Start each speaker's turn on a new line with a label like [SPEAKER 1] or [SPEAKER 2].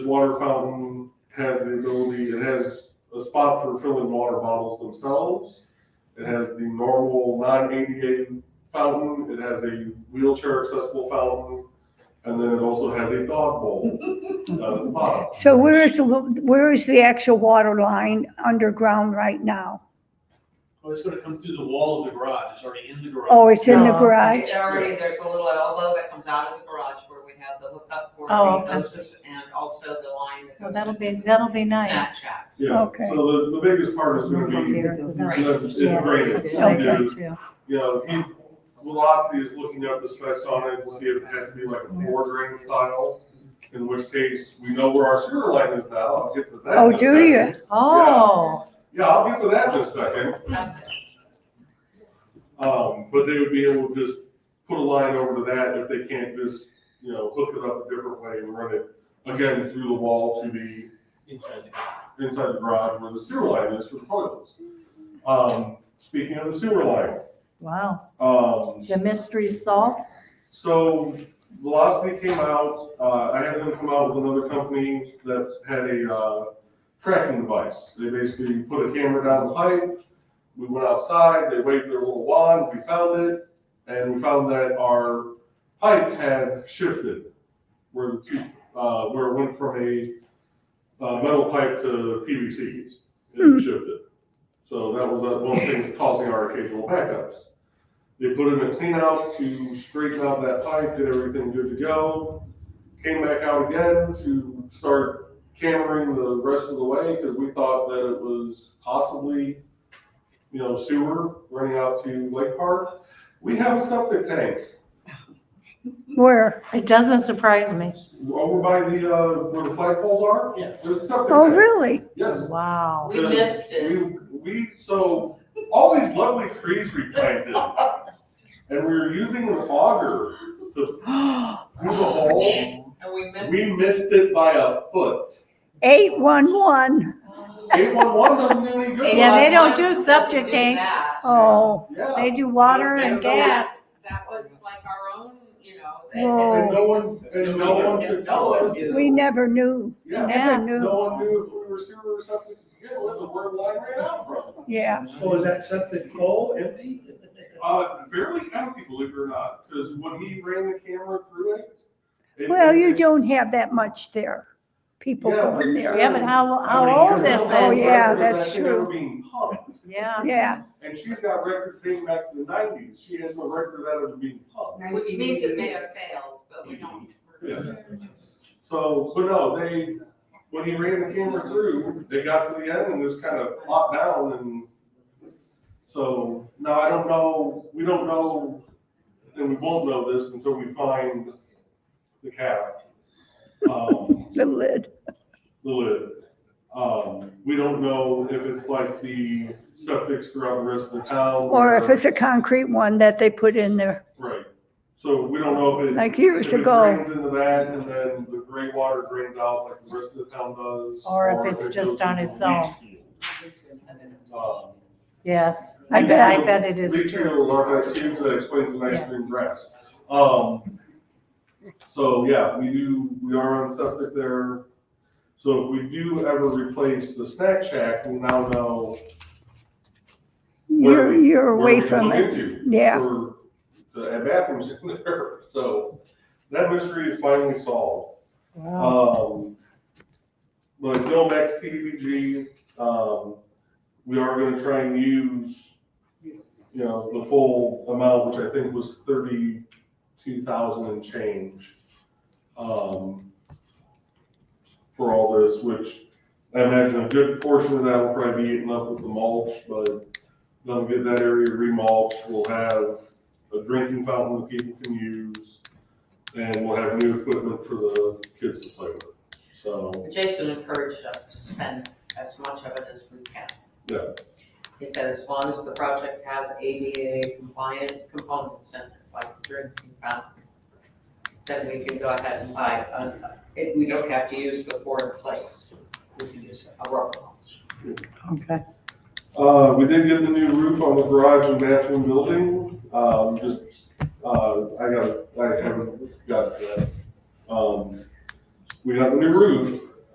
[SPEAKER 1] water fountain has the ability, it has a spot for filling water bottles themselves. It has the normal non-ADA fountain, it has a wheelchair accessible fountain, and then it also has a dog bowl down at the bottom.
[SPEAKER 2] So where is, the where is the actual water line underground right now?
[SPEAKER 3] Oh, it's gonna come through the wall of the garage, it's already in the garage.
[SPEAKER 2] Oh, it's in the
[SPEAKER 4] No.
[SPEAKER 2] garage?
[SPEAKER 5] It's already, there's a little elbow that comes out of the garage where we have the hookup for
[SPEAKER 4] Oh,
[SPEAKER 5] the hoses and also the line that
[SPEAKER 4] Well,
[SPEAKER 5] goes
[SPEAKER 4] that'll
[SPEAKER 5] to
[SPEAKER 4] be,
[SPEAKER 5] the
[SPEAKER 4] that'll be nice.
[SPEAKER 5] Snapchat.
[SPEAKER 1] Yeah,
[SPEAKER 2] Okay.
[SPEAKER 1] so the, the biggest part is gonna be, it's
[SPEAKER 4] Yeah,
[SPEAKER 1] graded.
[SPEAKER 4] I
[SPEAKER 1] Yeah.
[SPEAKER 4] agree too.
[SPEAKER 1] you know, he, Velocity is looking up the specs on it to see if it has to be like a four drain style, in which case, we know where our sewer line is now, I'll get to that. in
[SPEAKER 2] Oh,
[SPEAKER 1] a
[SPEAKER 2] do you?
[SPEAKER 1] second.
[SPEAKER 4] Oh,
[SPEAKER 1] Yeah, I'll get to that in a second,
[SPEAKER 5] Something.
[SPEAKER 1] um, but they would be able to just put a line over to that if they can't just, you know, hook it up a different way and run it again through the wall to the
[SPEAKER 3] Inside the garage.
[SPEAKER 1] inside the garage where the sewer line is for the toilets. Um, speaking of the sewer line,
[SPEAKER 4] wow.
[SPEAKER 1] um,
[SPEAKER 4] The mystery solved?
[SPEAKER 1] So Velocity came out, uh, I had them come out with another company that had a, uh, tracking device. They basically put a camera down the pipe, we went outside, they waved their little wand, we found it, and we found that our pipe had shifted. Where the two, uh, where it went from a, uh, metal pipe to PVC,
[SPEAKER 2] Hmm.
[SPEAKER 1] it shifted. So that was uh, one of the things causing our occasional backups. They put in a clean out to straighten out that pipe, did everything good to go. Came back out again to start cammering the rest of the way because we thought that it was possibly, you know, sewer running out to Lake Park. We have a septic tank
[SPEAKER 2] Where?
[SPEAKER 4] It doesn't surprise me.
[SPEAKER 1] over by the, uh, where the flagpoles are.
[SPEAKER 3] Yeah.
[SPEAKER 1] There's a septic
[SPEAKER 2] Oh,
[SPEAKER 1] tank.
[SPEAKER 2] really?
[SPEAKER 1] Yes.
[SPEAKER 4] Wow.
[SPEAKER 5] We missed it.
[SPEAKER 1] We, we, so, all these lovely trees we planted, and we were using an auger to move a hole.
[SPEAKER 5] And we missed,
[SPEAKER 1] We missed it by a foot.
[SPEAKER 2] Eight one one.
[SPEAKER 1] Eight one one doesn't do any good.
[SPEAKER 4] Yeah, they don't do
[SPEAKER 5] They don't
[SPEAKER 4] subject
[SPEAKER 5] do
[SPEAKER 4] tanks.
[SPEAKER 5] that.
[SPEAKER 2] Oh,
[SPEAKER 1] Yeah.
[SPEAKER 4] They do water and
[SPEAKER 5] so that-
[SPEAKER 4] gas.
[SPEAKER 5] That was like our own, you know. they-
[SPEAKER 2] Whoa.
[SPEAKER 1] And no one, and no one could tell us.
[SPEAKER 2] we never knew,
[SPEAKER 1] Yeah,
[SPEAKER 2] never
[SPEAKER 1] no
[SPEAKER 2] knew.
[SPEAKER 1] one knew if we were sewer or something. Yeah, where the word line ran out from.
[SPEAKER 2] Yeah,
[SPEAKER 6] So is that something full, empty?
[SPEAKER 1] Uh, barely empty, believe it or not, because when he ran the camera through it. it-
[SPEAKER 2] well, you
[SPEAKER 1] it-
[SPEAKER 2] don't have that much there. People
[SPEAKER 1] Yeah,
[SPEAKER 2] going
[SPEAKER 1] we-
[SPEAKER 2] there.
[SPEAKER 4] Yeah, but how, how
[SPEAKER 6] many
[SPEAKER 4] old
[SPEAKER 6] years
[SPEAKER 4] is
[SPEAKER 6] ago?
[SPEAKER 1] Oh,
[SPEAKER 4] it?
[SPEAKER 2] yeah,
[SPEAKER 1] records
[SPEAKER 2] that's
[SPEAKER 1] that thing ever
[SPEAKER 2] true.
[SPEAKER 1] Being pumped,
[SPEAKER 4] Yeah.
[SPEAKER 2] Yeah,
[SPEAKER 1] and she's got records dating back to the nineties. She has no record of it being pumped.
[SPEAKER 5] Which means it may have failed, but we don't.
[SPEAKER 1] Yeah. So, but no, they, when he ran the camera through, they got to the end and just kind of plopped down and so now I don't know, we don't know, and we won't know this until we find the cap. Um,
[SPEAKER 2] the lid.
[SPEAKER 1] the lid. Um, we don't know if it's like the septics throughout the rest of the town.
[SPEAKER 2] Or if it's a concrete one that they put in there
[SPEAKER 1] Right. So we don't know if it.
[SPEAKER 2] like years
[SPEAKER 1] If it
[SPEAKER 2] ago.
[SPEAKER 1] Drains into that and then the gray water drains out like the rest of the town does.
[SPEAKER 4] Or if it's
[SPEAKER 1] it
[SPEAKER 4] just
[SPEAKER 1] goes
[SPEAKER 4] on
[SPEAKER 1] into
[SPEAKER 4] its
[SPEAKER 1] a leach
[SPEAKER 4] own.
[SPEAKER 1] field. Um,
[SPEAKER 4] Yes.
[SPEAKER 2] I bet-
[SPEAKER 4] I bet it is
[SPEAKER 1] Leach
[SPEAKER 4] true.
[SPEAKER 1] field are like tubes that explains the nice green grass. Um, so yeah, we do, we are on septic there. So if we do ever replace the snack shack, we now know.
[SPEAKER 2] You're, you're
[SPEAKER 1] where
[SPEAKER 2] away
[SPEAKER 1] we can
[SPEAKER 2] from
[SPEAKER 1] look
[SPEAKER 2] it.
[SPEAKER 1] into
[SPEAKER 2] Yeah,
[SPEAKER 1] for The bathrooms in there, so that mystery is finally solved.
[SPEAKER 4] Wow.
[SPEAKER 1] Um, but going back to CDBG, um, we are gonna try and use, you know, the full amount, which I think was thirty-two thousand and change, um, for all this, which I imagine a good portion of that will probably be eaten up with the mulch, but they'll get that area remulched, we'll have a drinking fountain that people can use, and we'll have new equipment for the kids to play with. So,
[SPEAKER 5] Jason encouraged us to spend as much of it as we can.
[SPEAKER 1] Yeah.
[SPEAKER 5] He said as long as the project has ADA compliant components in it, like drinking fountain, then we can go ahead and buy, a- it- Uh, we don't have to use the four in place. We can use a rubber mulch.
[SPEAKER 4] Okay.
[SPEAKER 1] uh, we did get the new roof on the garage and bathroom building, um, just, uh, I got, I haven't got to that. Um, we got the new roof,